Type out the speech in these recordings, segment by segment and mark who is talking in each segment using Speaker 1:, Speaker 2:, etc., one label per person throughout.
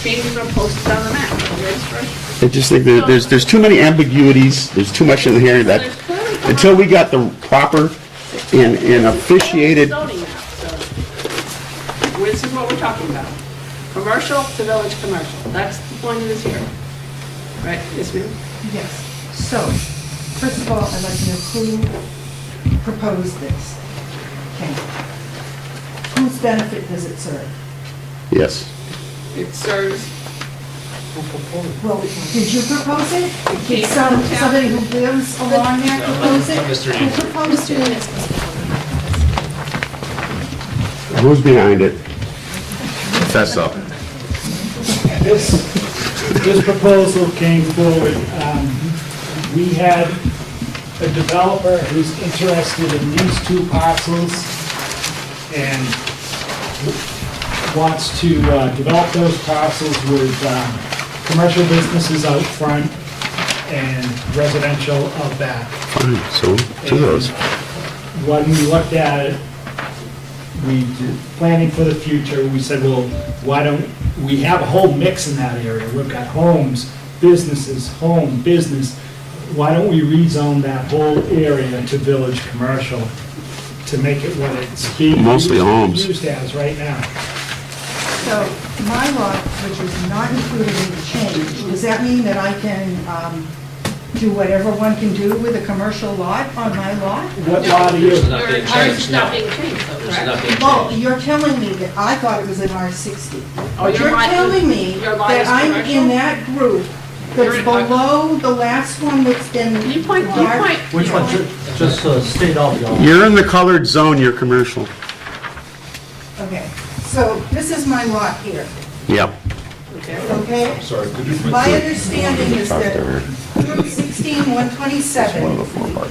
Speaker 1: things are posted on the map, and there's fresh-
Speaker 2: I just think there- there's, there's too many ambiguities, there's too much in here that,
Speaker 1: there's clearly not-
Speaker 2: until we got the proper and and officiated,
Speaker 1: Zoning map, so, this is what we're talking about. Commercial to village commercial, that's the point of this hearing. Right, yes, ma'am?
Speaker 3: Yes, so, first of all, I'd like to know who proposed this? Okay. Whose benefit does it serve?
Speaker 2: yes.
Speaker 1: It serves,
Speaker 3: Well, did you propose it?
Speaker 1: came
Speaker 3: Did some,
Speaker 1: from town.
Speaker 3: somebody who lives along there propose it? Who proposed it?
Speaker 2: Who's behind it? That's up.
Speaker 4: This, this proposal came forward, um, we had a developer who's interested in these two parcels and wants to uh, develop those parcels with um, commercial businesses out front and residential out back.
Speaker 2: So, two of those.
Speaker 4: When we looked at it, we, did planning for the future, we said, well, why don't, we have a whole mix in that area. We've got homes, businesses, home, business. Why don't we rezone that whole area to village commercial to make it what it's being.
Speaker 2: Mostly homes.
Speaker 4: Used as right now.
Speaker 3: So, my lot, which is not included in the change, does that mean that I can um, do whatever one can do with a commercial lot on my lot?
Speaker 4: What lot are you?
Speaker 5: There's
Speaker 1: your
Speaker 5: not being
Speaker 1: ours is
Speaker 5: changed,
Speaker 1: not
Speaker 5: no.
Speaker 1: being changed, though,
Speaker 5: There's
Speaker 1: correct?
Speaker 5: not being
Speaker 3: Well,
Speaker 5: changed.
Speaker 3: you're telling me that, I thought it was an R60.
Speaker 1: Oh,
Speaker 3: But
Speaker 1: your
Speaker 3: you're
Speaker 1: lot is-
Speaker 3: telling me
Speaker 1: your lot
Speaker 3: that
Speaker 1: is
Speaker 3: I'm
Speaker 1: commercial?
Speaker 3: in that group
Speaker 1: You're
Speaker 3: that's
Speaker 1: in- I-
Speaker 3: below the last one that's been.
Speaker 1: You point, you
Speaker 3: marked.
Speaker 1: point.
Speaker 6: Which one, Ju- just uh, state all of y'all.
Speaker 2: You're in the colored zone, you're commercial.
Speaker 3: Okay, so this is my lot here,
Speaker 2: Yep.
Speaker 1: Okay.
Speaker 3: okay? Sorry, My understanding is that 16127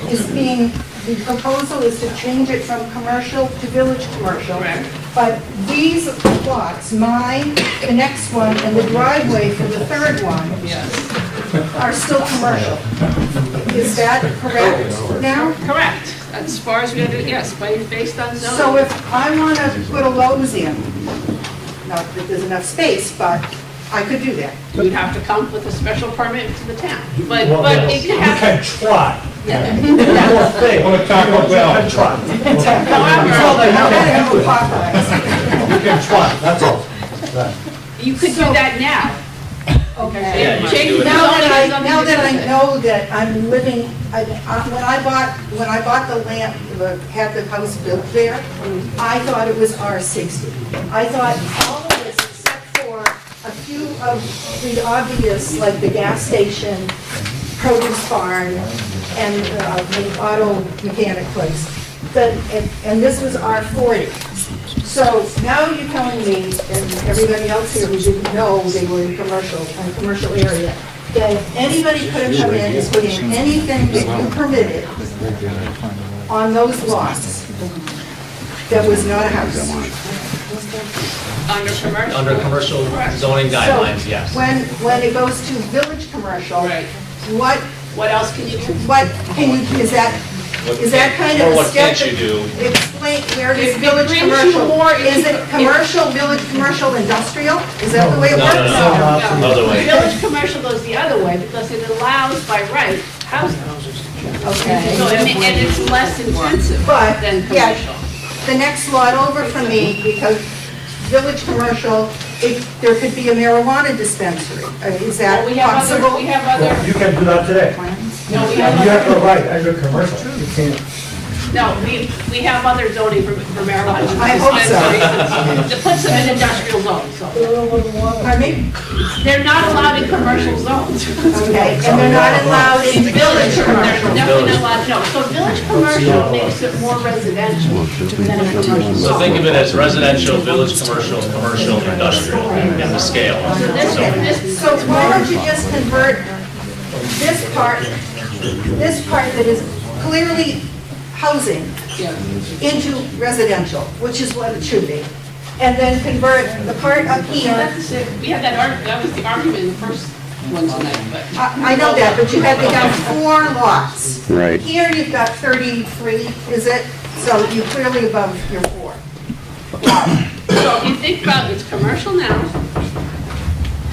Speaker 3: is being, the proposal is to change it from commercial to village commercial.
Speaker 1: Correct.
Speaker 3: But these lots, mine, the next one, and the driveway for the third one,
Speaker 1: Yes,
Speaker 3: are still commercial. Is that correct now?
Speaker 1: correct, as far as we're gonna do, yes, but it's based on zoning.
Speaker 3: So if I want to put a Lowe's in, not that there's enough space, but I could do that.
Speaker 1: You'd have to come with a special permit to the town, but,
Speaker 6: Well,
Speaker 1: but
Speaker 6: yes.
Speaker 1: it
Speaker 4: You
Speaker 1: could happen.
Speaker 4: can try.
Speaker 1: Yeah.
Speaker 6: Hey,
Speaker 7: Well, Taco Bell,
Speaker 6: can try, you
Speaker 3: Well,
Speaker 1: However,
Speaker 3: they have to have a Popeyes.
Speaker 6: can try, that's all.
Speaker 1: you could do that now.
Speaker 3: Okay.
Speaker 5: Yeah, you can
Speaker 1: Change
Speaker 5: do
Speaker 1: the
Speaker 5: it.
Speaker 3: Now that I,
Speaker 1: zoning
Speaker 3: now that I
Speaker 1: on the-
Speaker 3: know that I'm living, I- I- when I bought, when I bought the land, the- had the house built there, I thought it was R60. I thought all of this except for a few of the obvious, like the gas station, produce barn, and uh, the auto mechanic place. The- And and this was R40. So now you're telling me, and everybody else here who didn't know they were in commercial, in commercial area, that anybody could have come in and put in anything that you permitted on those lots that was not a house.
Speaker 1: Under commercial.
Speaker 5: Under commercial zoning guidelines,
Speaker 3: So
Speaker 5: yes.
Speaker 3: When, when it goes to village commercial,
Speaker 1: Right.
Speaker 3: what,
Speaker 1: What else can you do?
Speaker 3: what can you, is that, is that kind
Speaker 5: Or
Speaker 3: of a
Speaker 5: what
Speaker 3: step?
Speaker 5: can't you do?
Speaker 3: that- Explain, where
Speaker 1: If
Speaker 3: is
Speaker 1: it
Speaker 3: village
Speaker 1: brings you
Speaker 3: commercial?
Speaker 1: more, if
Speaker 3: Is
Speaker 1: you-
Speaker 3: it
Speaker 1: if-
Speaker 3: commercial, village, commercial, industrial? Is that the way it
Speaker 5: No,
Speaker 3: works?
Speaker 5: no, no, other way.
Speaker 1: Village commercial goes the other way because it allows by right housing.
Speaker 3: Okay.
Speaker 1: So, I mean, and it's less intensive
Speaker 3: But,
Speaker 1: than
Speaker 3: yeah.
Speaker 1: commercial.
Speaker 3: the next lot over from me, because Village Commercial, it, there could be a marijuana dispensary. Uh, Is that
Speaker 1: Well, we have other, we
Speaker 3: possible?
Speaker 1: have other,
Speaker 6: You can do that today.
Speaker 1: no, we
Speaker 6: You have
Speaker 1: have
Speaker 6: to
Speaker 1: other,
Speaker 6: write under commercial, you can't.
Speaker 1: no, we, we have other zoning for for marijuana.
Speaker 3: I hope so.
Speaker 1: dispensaries. It puts them in industrial zones, so.
Speaker 3: Pardon me?
Speaker 1: They're not allowed in commercial zones.
Speaker 3: Okay, and they're not allowed in Village Commercial.
Speaker 1: They're definitely not allowed, no. So village commercial makes it more residential than a commercial
Speaker 5: So
Speaker 1: zone.
Speaker 5: think of it as residential, village, commercial, commercial, industrial, and the scale.
Speaker 1: So this, this,
Speaker 3: So why don't you just convert this part, this part that is clearly housing
Speaker 1: yeah.
Speaker 3: into residential, which is what it should be? And then convert the part up here
Speaker 1: That's it. We had that arg, that was the argument in the first one tonight, but.
Speaker 3: I I know that, but you have, they got four lots.
Speaker 2: Right.
Speaker 3: Here you've got 33, is it? So you're clearly above your four.
Speaker 1: So if you think about, it's commercial now,